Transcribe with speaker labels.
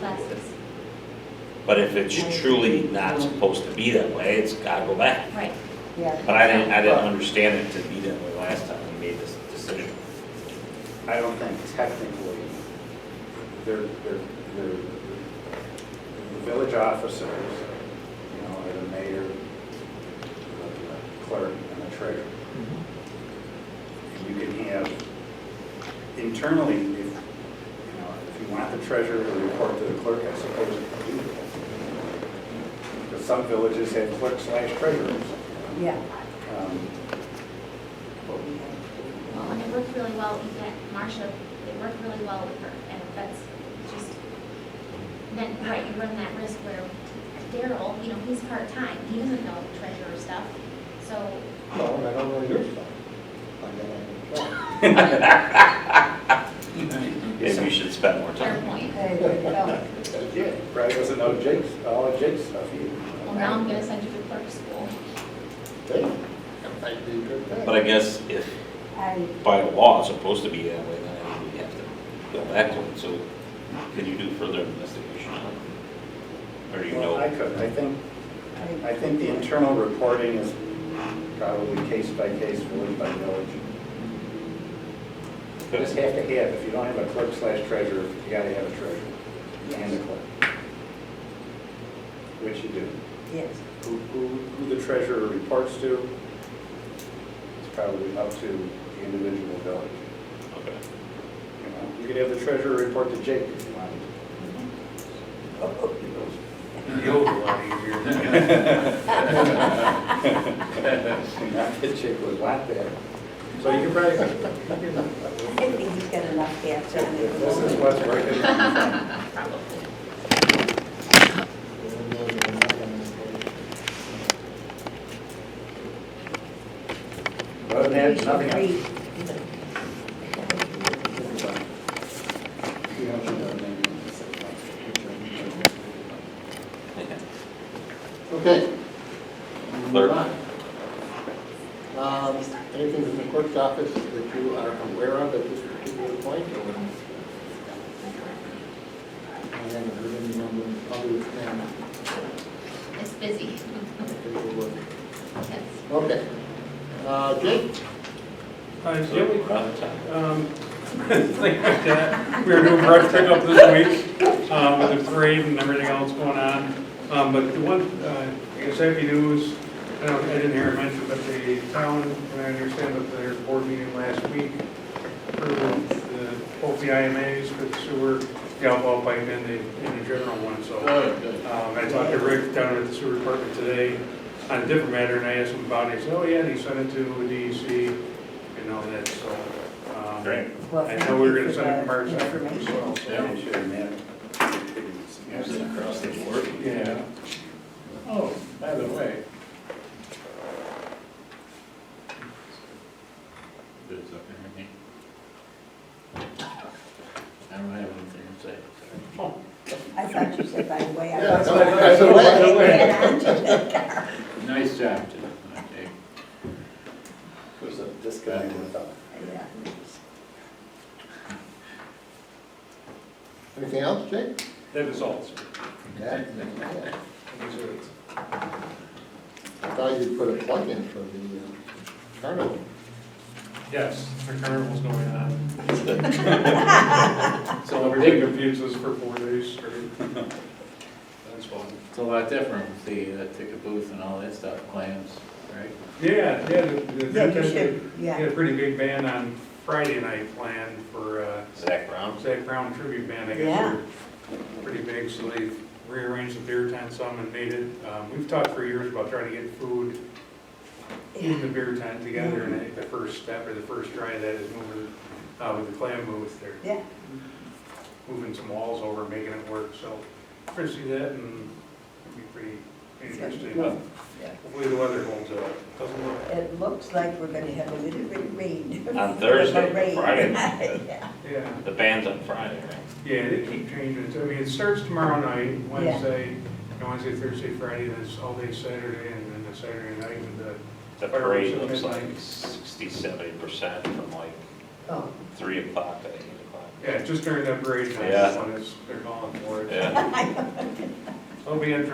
Speaker 1: But if it's truly not supposed to be that way, it's gotta go back.
Speaker 2: Right.
Speaker 3: Yeah.
Speaker 1: But I didn't, I didn't understand it to be that way last time we made this decision.
Speaker 4: I don't think technically, they're, they're, they're, the village officers, you know, are the mayor, the clerk, and the treasurer. You can have, internally, if, you know, if you want the treasurer to report to the clerk, I suppose you can do that. Because some villages have clerk slash treasurers.
Speaker 3: Yeah.
Speaker 4: Um,
Speaker 2: Well, and it worked really well, even Marsha, it worked really well with her, and that's just, then, right, you run that risk where Daryl, you know, he's part-time, he doesn't know treasurer stuff, so,
Speaker 5: Well, I don't know your stuff. I don't know.
Speaker 1: Maybe we should spend more
Speaker 2: fair
Speaker 1: time.
Speaker 2: point.
Speaker 4: Yeah, probably doesn't know Jake's, all of Jake's stuff either.
Speaker 2: Well, now I'm gonna send you to clerk school.
Speaker 5: Hey, that might be a good thing.
Speaker 1: But I guess if
Speaker 3: I,
Speaker 1: by law it's supposed to be that way, then I think we have to go back to it. So can you do further investigation on it? Or do you
Speaker 4: Well, I
Speaker 1: know?
Speaker 4: could, I think,
Speaker 3: I,
Speaker 4: I think the internal reporting is probably case by case, village by village. You just have to have, if you don't have a clerk slash treasurer, you gotta have a treasurer and a clerk. Which you do.
Speaker 3: yes.
Speaker 4: Who, who, who the treasurer reports to, it's probably up to the individual village.
Speaker 1: Okay.
Speaker 4: You know, You could have the treasurer report to Jake if you wanted to.
Speaker 6: You'll a lot easier than that.
Speaker 4: Not that chick was like that. So you can probably,
Speaker 3: I think he's got enough cats on
Speaker 4: this is
Speaker 3: it.
Speaker 4: what's working. Other than that, nothing else.
Speaker 3: Agreed.
Speaker 5: Okay.
Speaker 1: Clerk.
Speaker 5: Um, Anything from the clerk's office that you are aware of at this particular point? or- I haven't heard any number of others, and
Speaker 2: It's busy,
Speaker 5: I think we'll look.
Speaker 2: Yes.
Speaker 5: Okay. Uh, Jake?
Speaker 7: Hi, do you
Speaker 1: So
Speaker 7: have any
Speaker 1: we're out of time.
Speaker 7: um, thing like that. We were doing brush pickup this week, um, with the parade and everything else going on. Um, but the one, uh, I guess happy news, I don't, I didn't hear it mentioned, but the town, and I understand that their board meeting last week approved the, both the IMAs for the sewer, the outfall pipe and the, and the general one, so. Um, I talked to Rick down at the sewer department today on a different matter, and I asked him about it, he said, oh, yeah, and he sent it to DEC and all that, so. um,
Speaker 1: Great.
Speaker 3: Well,
Speaker 7: I know we were gonna
Speaker 3: thank you for
Speaker 7: send it to
Speaker 3: the
Speaker 7: Mark Zuckerberg as
Speaker 3: information.
Speaker 7: well, so.
Speaker 1: Across the board.
Speaker 7: Yeah,
Speaker 6: Oh, by the way. There's up in here. I don't have anything to say.
Speaker 3: I thought you said, by the way. I
Speaker 5: Yeah,
Speaker 3: was-
Speaker 5: that's what I- that's what I-
Speaker 3: I was gonna add on to that.
Speaker 6: Nice job, Jeff, okay.
Speaker 4: There's a disconnect with that.
Speaker 3: Yeah.
Speaker 5: Anything else, Jake?
Speaker 7: that is all.
Speaker 5: Yeah.
Speaker 7: Thank you, sir.
Speaker 5: I thought you'd put a plug in for the uh, carnival.
Speaker 7: Yes, the carnival's going on. So everything confuses for four days straight. That's fun.
Speaker 6: It's a lot different with the uh, ticket booth and all that stuff, clams, right?
Speaker 7: Yeah, yeah. the- the-
Speaker 3: You should,
Speaker 7: We had
Speaker 3: yeah.
Speaker 7: a pretty big band on Friday night planned for uh,
Speaker 1: Zach Brown.
Speaker 7: Zach Brown tribute band, I
Speaker 3: Yeah.
Speaker 7: guess. they're Pretty big, so they rearranged the beer tent some and made it. um, We've talked for years about trying to get food in the beer tent together, and I think the first step or the first try of that is moving, uh, with the clam booth, they're
Speaker 3: Yeah.
Speaker 7: moving some walls over, making it work, so we're gonna see that and it'll be pretty interesting. Hopefully the weather holds up, doesn't look
Speaker 3: It looks like we're gonna have a little bit of rain.
Speaker 1: On Thursday,
Speaker 3: Rain.
Speaker 1: Friday night.
Speaker 3: Yeah.
Speaker 7: Yeah,
Speaker 1: The band's on Friday, right?
Speaker 7: yeah, they keep changing it. I mean, it starts tomorrow night, Wednesday, you know, Wednesday, Thursday, Friday, and it's all day Saturday, and then the Saturday night with the,
Speaker 1: The parade looks like sixty, seventy percent from like
Speaker 3: Oh,
Speaker 1: three o'clock to eight o'clock.
Speaker 7: yeah, just during that parade time,
Speaker 1: Yeah.
Speaker 7: when it's, they're calling for it.
Speaker 1: Yeah.
Speaker 7: So hoping that